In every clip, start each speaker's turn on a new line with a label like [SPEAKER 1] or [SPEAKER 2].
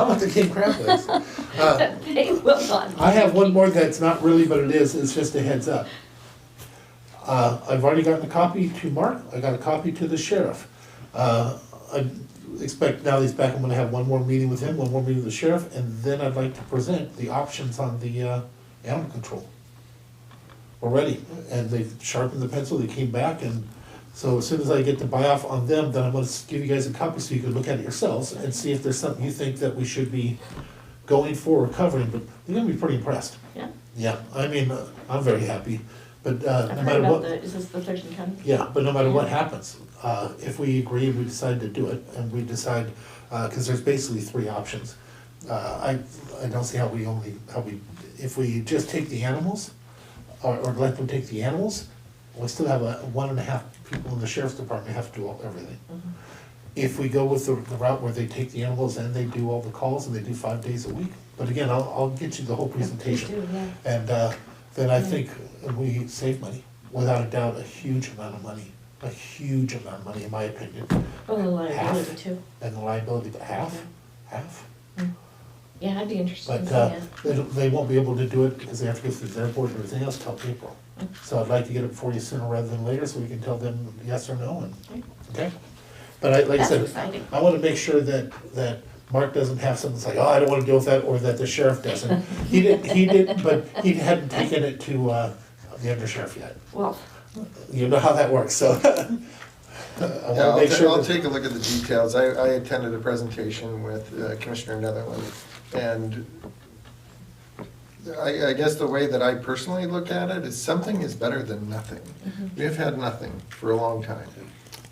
[SPEAKER 1] How about Oh, the King Crab Legs? Uh,
[SPEAKER 2] They will not.
[SPEAKER 1] I have one more that's not really, but it is, it's just a heads up. Uh, I've already gotten a copy to Mark, I got a copy to the sheriff. Uh, I expect now that he's back, I'm gonna have one more meeting with him, one more meeting with the sheriff, and then I'd like to present the options on the, uh, animal control. Already, and they've sharpened the pencil, they came back, and so as soon as I get the buy-off on them, then I'm gonna s- give you guys a copy so you can look at it yourselves and see if there's something you think that we should be going for or covering, but you're gonna be pretty impressed.
[SPEAKER 2] Yeah,
[SPEAKER 1] Yeah, I mean, uh, I'm very happy, but uh,
[SPEAKER 2] I've
[SPEAKER 1] no
[SPEAKER 2] heard
[SPEAKER 1] matter
[SPEAKER 2] about
[SPEAKER 1] what,
[SPEAKER 2] the, is this the Thurston County?
[SPEAKER 1] yeah, but no matter what happens, uh, if we agree, we decide to do it, and we decide, because there's basically three options. Uh, I, I don't see how we only, how we, if we just take the animals, or, or let them take the animals, we still have a, one and a half people in the sheriff's department have to do all- everything. If we go with the the route where they take the animals and they do all the calls, and they do five days a week, but again, I'll, I'll get you the whole presentation.
[SPEAKER 2] do, yeah.
[SPEAKER 1] And uh, then I think we save money, without a doubt, a huge amount of money, a huge amount of money, in my opinion.
[SPEAKER 2] Oh, the liability
[SPEAKER 1] Half.
[SPEAKER 2] too. Hmm.
[SPEAKER 1] And the liability, but half, half.
[SPEAKER 2] Yeah, I'd be interested in
[SPEAKER 1] But
[SPEAKER 2] seeing
[SPEAKER 1] uh,
[SPEAKER 2] it.
[SPEAKER 1] they don't- they won't be able to do it because they have to go through their board and everything else till April.
[SPEAKER 2] Mm.
[SPEAKER 1] So I'd like to get it for you sooner rather than later so we can tell them yes or no and,
[SPEAKER 2] Right.
[SPEAKER 1] okay? But I, like I
[SPEAKER 2] That's
[SPEAKER 1] said,
[SPEAKER 2] exciting.
[SPEAKER 1] I want to make sure that, that Mark doesn't have something that's like, oh, I don't want to deal with that, or that the sheriff doesn't. He didn't, he didn't, but he hadn't taken it to uh, the undersheriff yet.
[SPEAKER 2] Well,
[SPEAKER 1] You know how that works, so. I
[SPEAKER 3] Yeah,
[SPEAKER 1] want to
[SPEAKER 3] I'll,
[SPEAKER 1] make
[SPEAKER 3] ta-
[SPEAKER 1] sure.
[SPEAKER 3] I'll
[SPEAKER 1] that-
[SPEAKER 3] take a look at the details. I, I attended a presentation with uh, Commissioner Netherland, and I, I guess the way that I personally look at it is something is better than nothing. We've had nothing for a long time.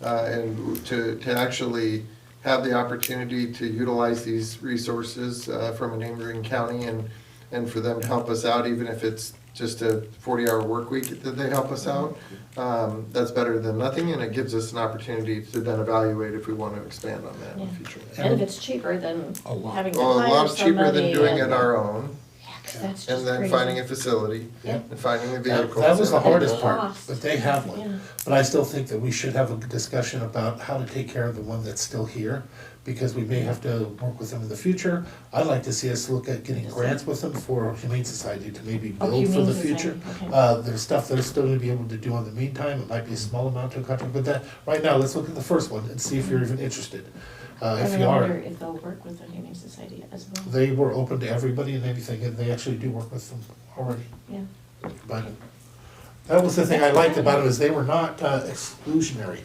[SPEAKER 3] Uh, and to, to actually have the opportunity to utilize these resources uh, from a neighboring county and, and for them to help us out, even if it's just a forty-hour work week that they help us out, um, that's better than nothing, and it gives us an opportunity to then evaluate if we want to expand on that in the
[SPEAKER 2] Yeah.
[SPEAKER 3] future.
[SPEAKER 2] and if it's cheaper than having to
[SPEAKER 3] Well, a
[SPEAKER 2] hire
[SPEAKER 3] lot cheaper
[SPEAKER 2] somebody
[SPEAKER 3] than doing
[SPEAKER 2] and-
[SPEAKER 3] it our own,
[SPEAKER 2] Yeah, 'cause that's just
[SPEAKER 3] and then
[SPEAKER 2] crazy.
[SPEAKER 3] finding a facility,
[SPEAKER 1] Yeah.
[SPEAKER 3] and finding the
[SPEAKER 1] That
[SPEAKER 3] vehicles.
[SPEAKER 1] that was the
[SPEAKER 3] and-
[SPEAKER 1] hardest part,
[SPEAKER 2] Cost.
[SPEAKER 1] but they have one.
[SPEAKER 2] Yeah.
[SPEAKER 1] But I still think that we should have a discussion about how to take care of the one that's still here, because we may have to work with them in the future. I'd like to see us look at getting grants with them for Humane Society to maybe
[SPEAKER 2] Oh,
[SPEAKER 1] build for
[SPEAKER 2] Humane
[SPEAKER 1] the
[SPEAKER 2] Society,
[SPEAKER 1] future.
[SPEAKER 2] okay.
[SPEAKER 1] Uh, there's stuff they're still gonna be able to do in the meantime, it might be a small amount to a contract, but that, right now, let's look at the first one and see if you're even interested. Uh,
[SPEAKER 2] I
[SPEAKER 1] if
[SPEAKER 2] mean,
[SPEAKER 1] you
[SPEAKER 2] I
[SPEAKER 1] are.
[SPEAKER 2] wonder if they'll work with the Humane Society as well.
[SPEAKER 1] They were open to everybody and anything, and they actually do work with them already.
[SPEAKER 2] Yeah,
[SPEAKER 1] But that was the thing I liked about it, is they were not uh, exclusionary.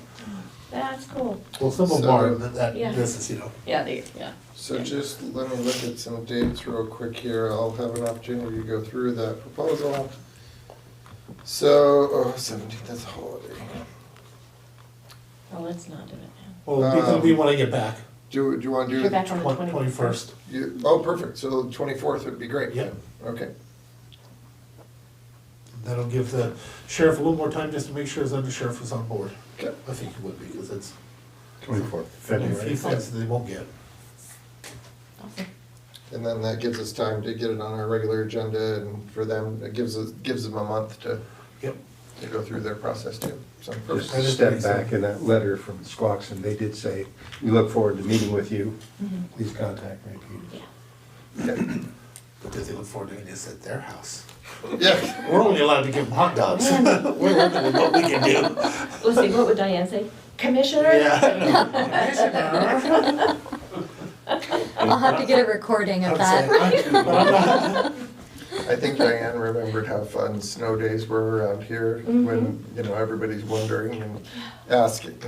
[SPEAKER 2] that's cool.
[SPEAKER 1] Well, some of them
[SPEAKER 3] So-
[SPEAKER 1] are, but that
[SPEAKER 2] Yeah.
[SPEAKER 1] business, you know.
[SPEAKER 2] Yeah, they, yeah.
[SPEAKER 3] So just let me look at some dates real quick here. I'll have an opportunity to go through that proposal. So, oh, 17th, that's a holiday.
[SPEAKER 2] Well, let's not do it now.
[SPEAKER 1] Well, because we want to get back,
[SPEAKER 3] Do, do you want to do?
[SPEAKER 2] You're back on the
[SPEAKER 1] twen- twenty-first.
[SPEAKER 2] twenty-first.
[SPEAKER 3] you- Oh, perfect. So the 24th would be great.
[SPEAKER 1] Yep.
[SPEAKER 3] Okay.
[SPEAKER 1] That'll give the sheriff a little more time just to make sure his undersheriff is on board.
[SPEAKER 3] Okay.
[SPEAKER 1] I think he would be, because it's
[SPEAKER 4] Twenty-fourth.
[SPEAKER 1] a few things that they won't get.
[SPEAKER 3] And then that gives us time to get it on our regular agenda and for them, it gives us, gives them a month to,
[SPEAKER 1] Yep.
[SPEAKER 3] to go through their process too. So
[SPEAKER 4] Just to step back in that letter from Squaxon, they did say, we look forward to meeting with you. Please contact Ray Peters.
[SPEAKER 2] Yeah,
[SPEAKER 1] But does he look forward to doing this at their house?
[SPEAKER 3] Yeah.
[SPEAKER 1] We're only allowed to give them hot dogs. We're limited with what we can do.
[SPEAKER 2] let's see, what would Diane say? Commissioner?
[SPEAKER 1] Yeah.
[SPEAKER 5] I'll have to get a recording of
[SPEAKER 1] I'm
[SPEAKER 5] that.
[SPEAKER 1] saying, I- but I'm not-
[SPEAKER 3] I think Diane remembered how fun snow days were around here when, you know, everybody's wondering and asking.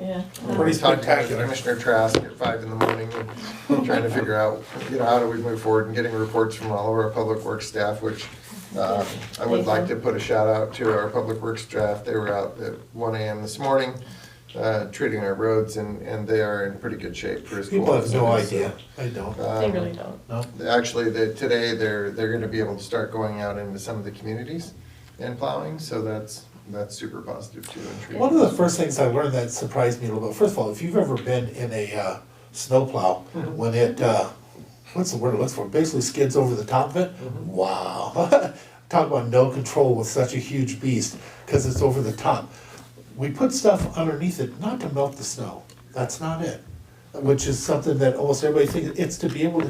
[SPEAKER 2] Yeah.
[SPEAKER 1] Pretty
[SPEAKER 3] Talking to
[SPEAKER 1] spectacular.
[SPEAKER 3] Commissioner Trask at five in the morning and trying to figure out, you know, how do we move forward and getting reports from all of our public works staff, which um, I would like to put a shout out to our public works staff. They were out at one AM this morning uh, treating our roads and, and they are in pretty good shape for as
[SPEAKER 1] People
[SPEAKER 3] cold
[SPEAKER 1] have
[SPEAKER 3] as
[SPEAKER 1] no
[SPEAKER 3] it is.
[SPEAKER 1] idea. I don't.
[SPEAKER 2] They really don't.
[SPEAKER 1] No.
[SPEAKER 3] Actually, the, today, they're, they're gonna be able to start going out into some of the communities and plowing, so that's, that's super positive too. and treating-
[SPEAKER 1] One of the first things I learned that surprised me a little bit. First of all, if you've ever been in a uh, snowplow when it, uh, what's the word it looks for? Basically skids over the top of it. Wow. Talk about no control with such a huge beast because it's over the top. We put stuff underneath it not to melt the snow. That's not it. which is something that almost everybody thinks, it's to be able to